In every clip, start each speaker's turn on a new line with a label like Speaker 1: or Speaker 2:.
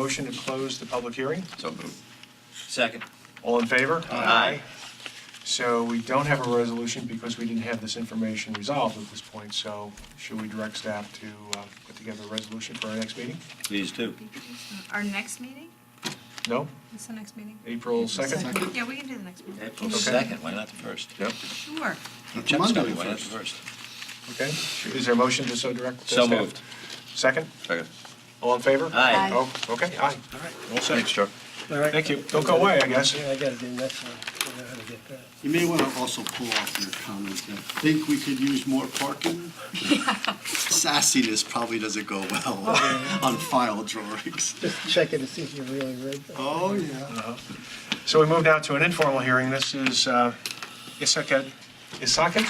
Speaker 1: Motion to close the public hearing.
Speaker 2: So moved.
Speaker 3: Second.
Speaker 1: All in favor?
Speaker 3: Aye.
Speaker 1: So we don't have a resolution because we didn't have this information resolved at this point, so should we direct staff to uh, put together a resolution for our next meeting?
Speaker 2: Please do.
Speaker 4: Our next meeting?
Speaker 1: No?
Speaker 4: What's the next meeting?
Speaker 1: April 2nd?
Speaker 4: Yeah, we can do the next meeting.
Speaker 2: April 2nd, why not the 1st? Yep.
Speaker 4: Sure.
Speaker 2: Chuck's
Speaker 5: Monday
Speaker 2: coming, why not the
Speaker 5: first.
Speaker 2: 1st?
Speaker 1: Okay. Is there a motion to so direct?
Speaker 2: So
Speaker 1: staff?
Speaker 2: moved.
Speaker 1: Second?
Speaker 2: Second.
Speaker 1: All in favor?
Speaker 2: Aye.
Speaker 1: Oh, okay, aye.
Speaker 2: Thanks, Chuck.
Speaker 6: All right.
Speaker 1: Thank you. Don't go away, I guess.
Speaker 6: Yeah, I gotta do the next one. I don't know how to get that.
Speaker 5: You may want to also pull off your comment that think we could use more parking. Sassiness probably doesn't go well on file drawings.
Speaker 6: Just checking to see if you really read that.
Speaker 5: Oh, yeah.
Speaker 1: So we move now to an informal hearing. This is uh, Isaket, Isaket?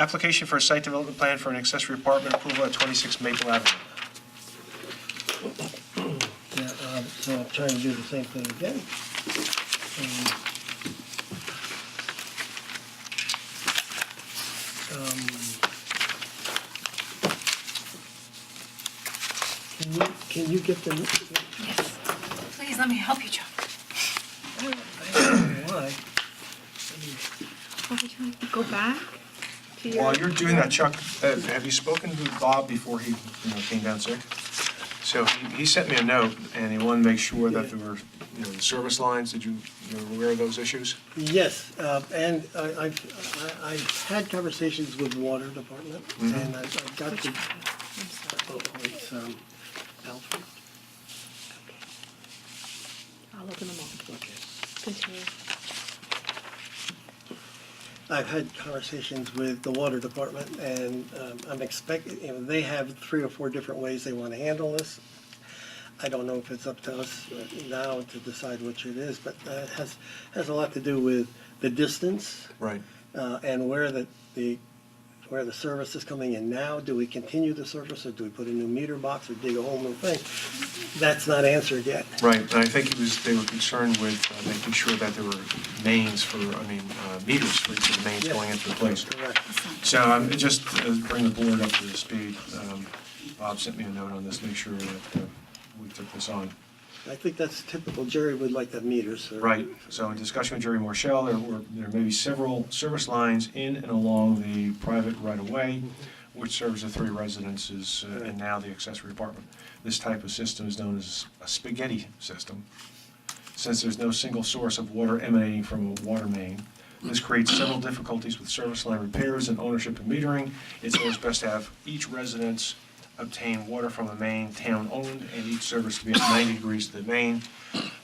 Speaker 1: Application for a site development plan for an accessory apartment approval at 26 Maple Avenue.
Speaker 6: Yeah, um, So I'm trying to do the same thing again. Um, um, um, Can you, can you get the,
Speaker 4: Yes. Please, let me help you, Chuck.
Speaker 6: I don't know why,
Speaker 4: Are we going to go back to your?
Speaker 1: While you're doing that, Chuck, uh, have you spoken to Bob before he, you know, came down sick? So he- he sent me a note, and he wanted to make sure that there were, you know, the service lines, did you, you were aware of those issues?
Speaker 6: Yes, uh, and I- I've, I- I've had conversations with water department, and I've I've got
Speaker 4: Which
Speaker 6: the,
Speaker 4: one? I'm sorry.
Speaker 6: oh, it's, um, Alfred,
Speaker 4: I'll open them all.
Speaker 6: okay.
Speaker 4: Continue.
Speaker 6: I've had conversations with the water department, and um, I'm expecting, you know, they have three or four different ways they want to handle this. I don't know if it's up to us now to decide which it is, but uh, it has, has a lot to do with the distance.
Speaker 1: Right.
Speaker 6: uh, and where the, the, where the service is coming in now, do we continue the service, or do we put a new meter box, or dig a whole new thing? That's not answered yet.
Speaker 1: Right, and I think it was, they were concerned with uh, making sure that there were mains for, I mean, uh, meters for each of the mains
Speaker 6: Yes.
Speaker 1: going into the place.
Speaker 6: Correct.
Speaker 1: So I'm just uh, bring the board up to the speed. Um, Bob sent me a note on this, make sure that uh, we took this on.
Speaker 6: I think that's typical, Jerry would like that meter, so.
Speaker 1: Right, so in discussion with Jerry Marshall, there were, there may be several service lines in and along the private right-of-way, which serves the three residences uh, and now the accessory apartment. This type of system is known as a spaghetti system. Since there's no single source of water emanating from a water main, this creates several difficulties with service line repairs and ownership and metering. It's always best to have each residence obtain water from a main town-owned and each service to be at 90 degrees to the main.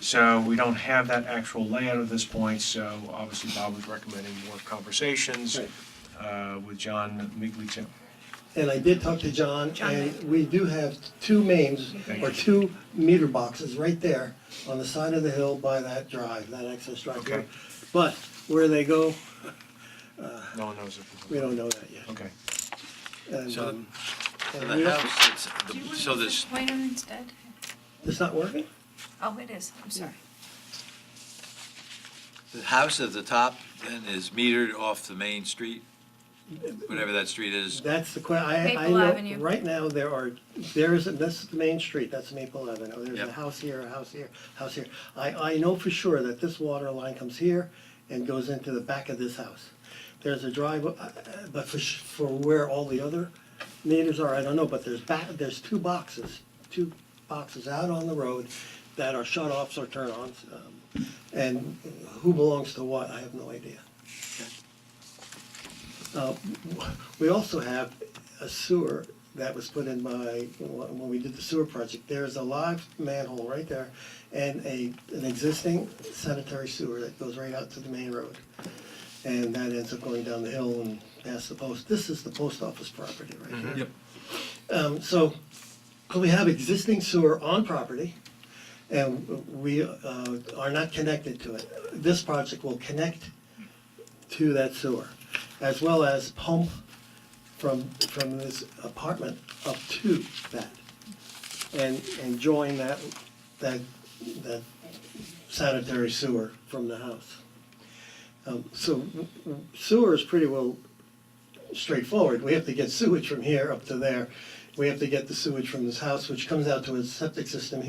Speaker 1: So we don't have that actual layout at this point, so obviously Bob was recommending more conversations
Speaker 6: Right.
Speaker 1: uh, with John Migliaccio.
Speaker 6: And I did talk to John,
Speaker 4: John.
Speaker 6: and we do have two mains,
Speaker 1: Thank
Speaker 6: or
Speaker 1: you.
Speaker 6: two meter boxes right there on the side of the hill by that drive, that access drive.
Speaker 1: Okay.
Speaker 6: But where they go,
Speaker 1: No one knows
Speaker 6: we
Speaker 1: if,
Speaker 6: don't know that yet.
Speaker 1: okay.
Speaker 6: And,
Speaker 3: So-
Speaker 6: um, and we
Speaker 3: The
Speaker 6: don't-
Speaker 3: house,
Speaker 4: Do you want
Speaker 3: that's,
Speaker 4: to
Speaker 3: so
Speaker 4: use
Speaker 3: there's,
Speaker 4: the pointer instead?
Speaker 6: It's not working?
Speaker 4: Oh, it is, I'm sorry.
Speaker 3: the house at the top then is metered off the main street, whatever that street is.
Speaker 6: That's the que, I, I
Speaker 4: Maple Avenue.
Speaker 6: know, right now, there are, there is, this is the main street, that's Maple Avenue, there's a
Speaker 3: Yep.
Speaker 6: house here, a house here, house here. I, I know for sure that this water line comes here and goes into the back of this house. There's a drive, uh, uh, but for, sh- for where all the other meters are, I don't know, but there's back, there's two boxes, two boxes out on the road that are shut-offs or turn-ons, um, and who belongs to what, I have no idea. Uh, We also have a sewer that was put in by, when we did the sewer project, there's a live manhole right there and a, an existing sanitary sewer that goes right out to the main road. And that ends up going down the hill and past the post. This is the post office property right here. Um, so, we have existing sewer on property, and we, uh, are not connected to it. This project will connect to that sewer, as well as pump from, from this apartment up to that. And, and join that, that, that sanitary sewer from the house. Um, so sewer is pretty well straightforward. We have to get sewage from here up to there we have to get the sewage from this house, which comes out to a septic system